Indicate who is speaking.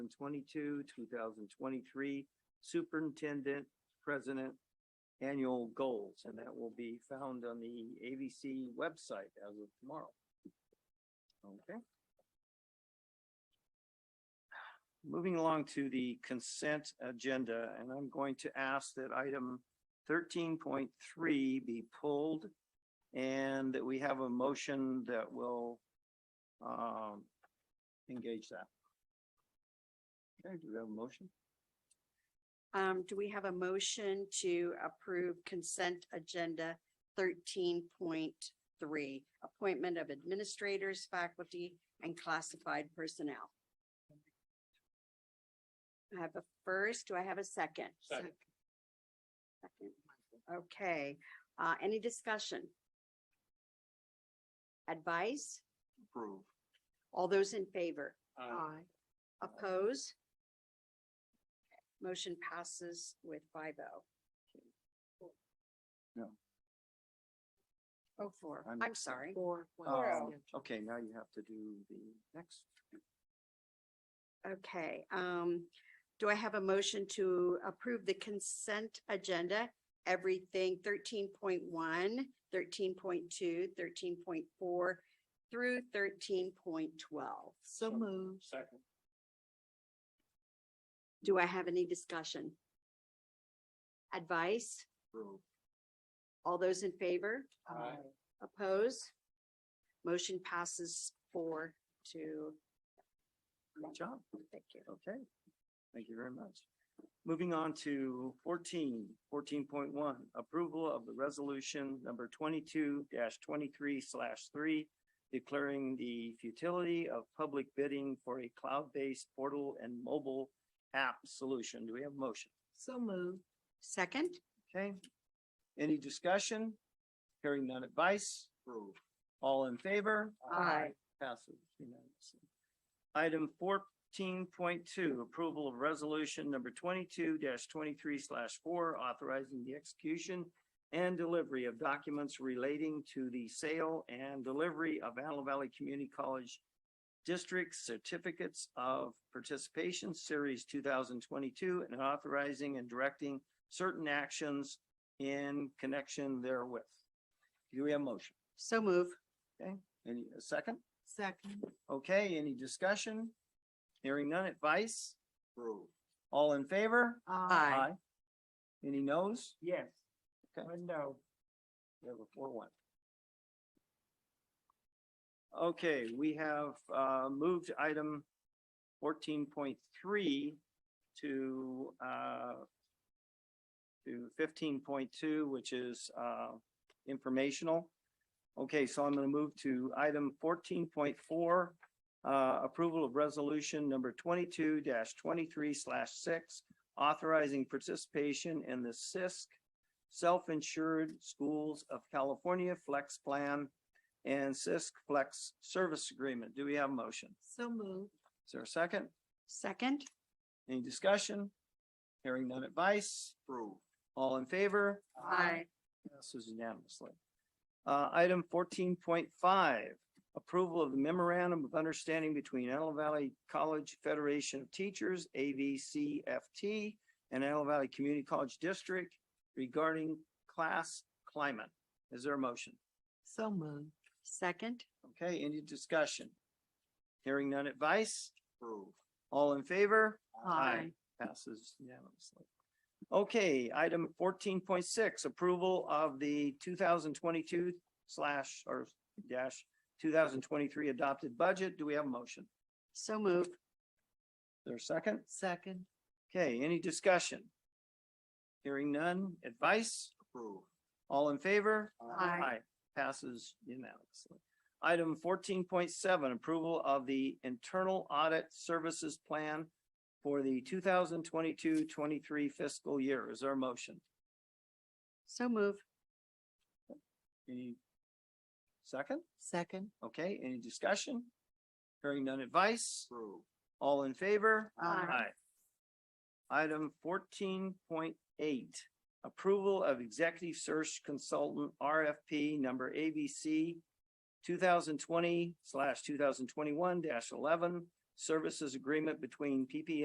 Speaker 1: twenty-two, two thousand twenty-three Superintendent President Annual Goals, and that will be found on the ABC website as of tomorrow. Okay. Moving along to the consent agenda, and I'm going to ask that item thirteen point three be pulled and that we have a motion that will um, engage that. Okay, do we have a motion?
Speaker 2: Um, do we have a motion to approve consent agenda thirteen point three? Appointment of administrators, faculty, and classified personnel. I have a first. Do I have a second?
Speaker 1: Second.
Speaker 2: Second. Okay, uh, any discussion? Advice?
Speaker 1: Approve.
Speaker 2: All those in favor?
Speaker 3: Uh,
Speaker 1: Aye.
Speaker 2: Oppose? Motion passes with five oh.
Speaker 1: No.
Speaker 2: Oh, four.
Speaker 1: I'm-
Speaker 2: I'm sorry.
Speaker 3: Four.
Speaker 1: Um, Okay, now you have to do the next.
Speaker 2: Okay, um, do I have a motion to approve the consent agenda? Everything 13.1, 13.2, 13.4 through thirteen point twelve.
Speaker 3: So moved.
Speaker 1: Second.
Speaker 2: Do I have any discussion? Advice?
Speaker 1: Approve.
Speaker 2: All those in favor?
Speaker 1: Aye.
Speaker 2: Oppose? Motion passes four to,
Speaker 1: Good job.
Speaker 2: thank you.
Speaker 1: Okay, thank you very much. Moving on to 14, 14.1, approval of the resolution number twenty-two twenty-three slash three, declaring the futility of public bidding for a cloud-based portal and mobile app solution. Do we have a motion?
Speaker 3: So moved.
Speaker 2: Second,
Speaker 1: Okay. Any discussion? Hearing none advice? All in favor?
Speaker 2: Aye.
Speaker 1: Passes unanimously. Item fourteen point two, approval of resolution number twenty-two twenty-three four, authorizing the execution and delivery of documents relating to the sale and delivery of Antelope Valley Community College District Certificates of Participation Series two thousand twenty-two and authorizing and directing certain actions in connection therewith. Do we have a motion?
Speaker 2: so move.
Speaker 1: Okay, any, a second?
Speaker 3: Second.
Speaker 1: Okay, any discussion? Hearing none advice?
Speaker 4: Approve.
Speaker 1: All in favor?
Speaker 2: Aye.
Speaker 1: Any noes?
Speaker 4: Yes.
Speaker 1: Okay.
Speaker 4: One no.
Speaker 1: We have a four one. Okay, we have uh moved item fourteen point three to uh to fifteen point two, which is uh informational. Okay, so I'm gonna move to item fourteen point four, uh approval of resolution number twenty-two twenty-three slash six, authorizing participation in the CISC Self-Insured Schools of California Flex Plan and CISC Flex Service Agreement. Do we have a motion?
Speaker 3: So moved.
Speaker 1: Is there a second?
Speaker 2: Second,
Speaker 1: Any discussion? Hearing none advice?
Speaker 4: Approve.
Speaker 1: All in favor?
Speaker 2: aye,
Speaker 1: Passes unanimously. Uh, item fourteen point five, approval of the memorandum of understanding between Antelope Valley College Federation of Teachers, AVCFT, and Antelope Valley Community College District regarding class climate. Is there a motion?
Speaker 3: So moved.
Speaker 2: second,
Speaker 1: Okay, any discussion? Hearing none advice?
Speaker 4: Approve.
Speaker 1: All in favor?
Speaker 3: Aye.
Speaker 1: Passes unanimously. Okay, item fourteen point six, approval of the two thousand twenty-two slash or dash two thousand twenty-three adopted budget. Do we have a motion? Is
Speaker 2: so move.
Speaker 1: there a second?
Speaker 3: Second.
Speaker 1: Okay, any discussion? Hearing none, advice?
Speaker 4: Approve.
Speaker 1: All in favor?
Speaker 2: Aye.
Speaker 1: Passes unanimously. Item fourteen point seven, approval of the internal audit services plan for the 2022-23 fiscal year. Is there a motion?
Speaker 2: So move,
Speaker 1: Any second?
Speaker 3: Second.
Speaker 1: Okay, any discussion? Hearing none advice?
Speaker 4: Approve.
Speaker 1: All in favor?
Speaker 2: Aye.
Speaker 1: Aye. Item fourteen point eight, approval of executive search consultant RFP number ABC two thousand twenty slash two thousand twenty-one eleven, services agreement between PPA